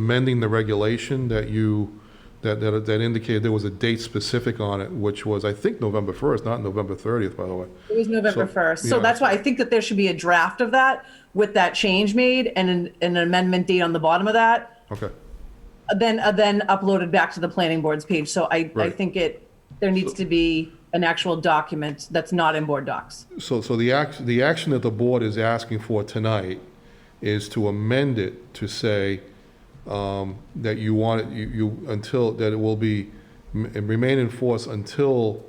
amending the regulation that you, that, that that indicated there was a date specific on it, which was, I think, November 1st, not November 30th, by the way. It was November So- 1st. So yeah. that's why I think that there should be a draft of that with that change made and an, an amendment date on the bottom of that, Okay, uh, then, uh, then uploaded back to the planning board's page. So I, I Right. think it, there needs to be an actual document that's not in board docs. so, so the act, the action that the board is asking for tonight is to amend it to say um, that you want it, you, you, until, that it will be, m- remain in force until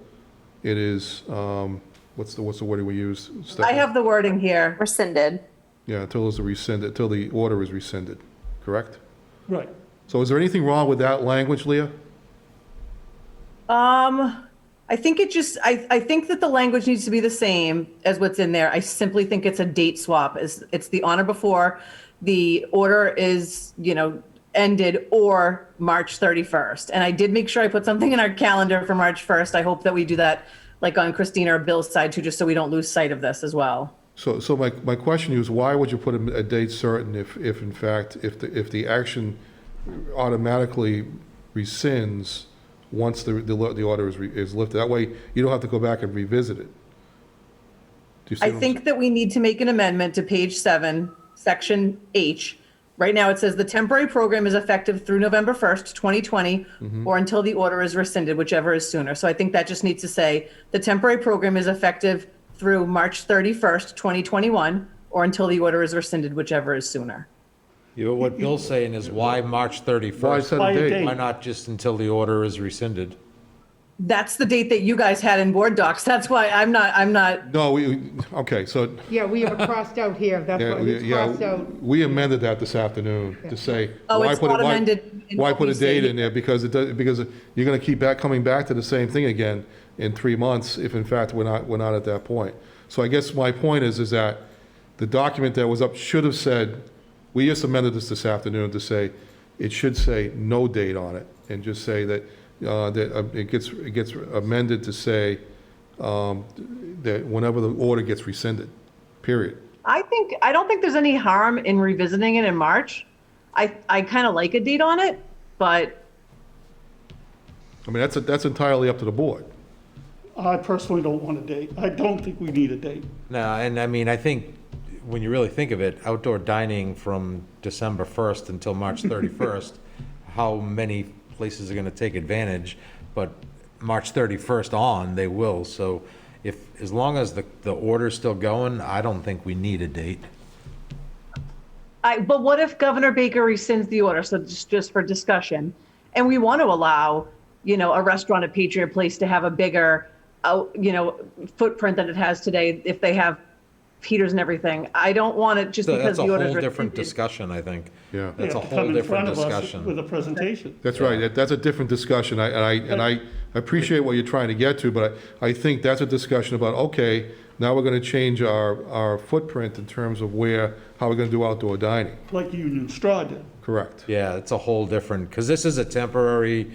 it is, um, what's the, what's the word we use? I have the wording here. rescinded. Yeah, until it's rescinded, until the order is rescinded, correct? Right. So is there anything wrong with that language, Leah? Um, I think it just, I, I think that the language needs to be the same as what's in there. I simply think it's a date swap. It's, it's the honor before the order is, you know, ended or March 31st. And I did make sure I put something in our calendar for March 1st. I hope that we do that like on Christina or Bill's side too, just so we don't lose sight of this as well. So, so my, my question is, why would you put a a date certain if, if in fact, if the, if the action automatically rescinds once the, the lo- the order is, re- is lifted? That way, you don't have to go back and revisit it. Do you see I what I'm think that we need to make an amendment to page seven, section H. Right now, it says the temporary program is effective through November 1st, 2020, or until the order is rescinded, whichever is sooner. So I think that just needs to say the temporary program is effective through March 31st, 2021, or until the order is rescinded, whichever is sooner. Yeah, but what Bill's saying is why March Why 31st? set By a a date? date. Why not just until the order is rescinded? That's the date that you guys had in board docs. That's why I'm not, I'm not, No, we, okay, so, Yeah, we have it crossed out here, that's yeah, what we- it's crossed yeah, out. we amended that this afternoon to say. Oh, why it's put it- not why- amended in Why what put we a date say. in there? Because it does, because you're gonna keep back, coming back to the same thing again in three months if in fact we're not, we're not at that point. So I guess my point is, is that the document that was up should have said, we just amended this this afternoon to say, it should say no date on it and just say that, uh, that uh, it gets, it gets amended to say, um, that whenever the order gets rescinded, period. I think, I don't think there's any harm in revisiting it in March. I, I kind of like a date on it, but I mean, that's, that's entirely up to the board. I personally don't want a date. I don't think we need a date. No, and I mean, I think, when you really think of it, outdoor dining from December 1st until March 31st, how many places are going to take advantage? But March 31st on, they will, so if, as long as the, the order's still going, I don't think we need a date. I, but what if Governor Baker rescinds the order? So just, just for discussion, and we want to allow, you know, a restaurant at Patriot Place to have a bigger, uh, you know, footprint than it has today if they have heaters and everything. I don't want it just So because That's a the order. whole different discussion, I think. Yeah. That's They a have to come whole in different front of us discussion. With a presentation. That's right, That- that's a different discussion, I- and I, and I appreciate what you're trying to get to, but I, I think that's a discussion about, okay, now we're gonna change our, our footprint in terms of where, how we're gonna do outdoor dining, like Union Straw did. correct? Yeah, it's a whole different, because this is a temporary,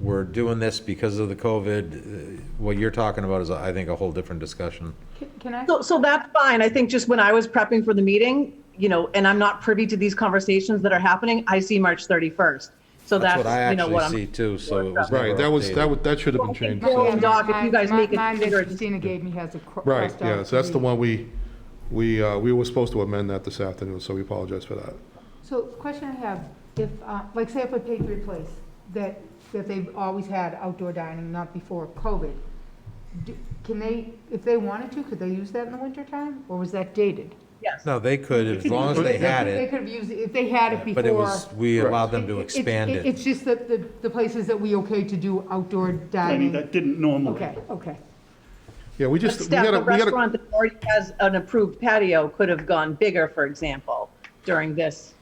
we're doing this because of the COVID. Uh, What you're talking about is, I think, a whole different discussion. Can I? So, so that's fine. I think just when I was prepping for the meeting, you know, and I'm not privy to these conversations that are happening, I see March 31st. So That's that's, what I you know, actually what see I'm. too, so it was Right, that was, that was, that should have been changed. Well, so- Doc, if you guys make it Mine that bigger, Christina gave me has it cro- Right, crossed out. yeah, so that's the three. one we, we, uh, we were supposed to amend that this afternoon, so we apologize for that. So question I have, if, uh, like say if a Patriot Place, that, that they've always had outdoor dining, not before COVID, do- can they, if they wanted to, could they use that in the wintertime, or was that dated? Yes. No, they could, as long as they had They it, could have used, it if they had it before. but it was, we allowed them to It's- expand It's it. just that the, the places that we okay to do outdoor I mean, dining, that didn't normally. okay, okay. Yeah, we But just, we Steph, gotta, a we gotta, restaurant that already has an approved patio could have gone bigger, for example, during this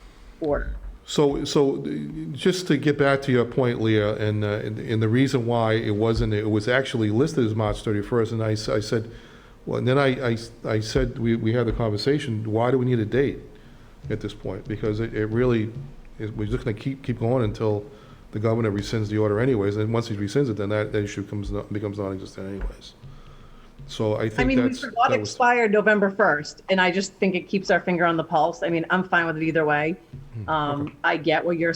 order. so, so, uh, just to get back to your point, Leah, and, uh, and and the reason why it wasn't, it was actually listed as March 31st, and I, s- I said, Well, and then I, I, I said, we, we had the conversation, why do we need a date at this point? Because it, it really, is we're just gonna keep, keep going until the governor rescinds the order anyways, and once he rescinds it, then that, that issue comes, non- becomes non-existent anyways. So I I think mean, we that's, forgot that was- expired November 1st, Hmm, and I just think it keeps our finger on the pulse. I mean, I'm fine with it either way. Um, I get what you're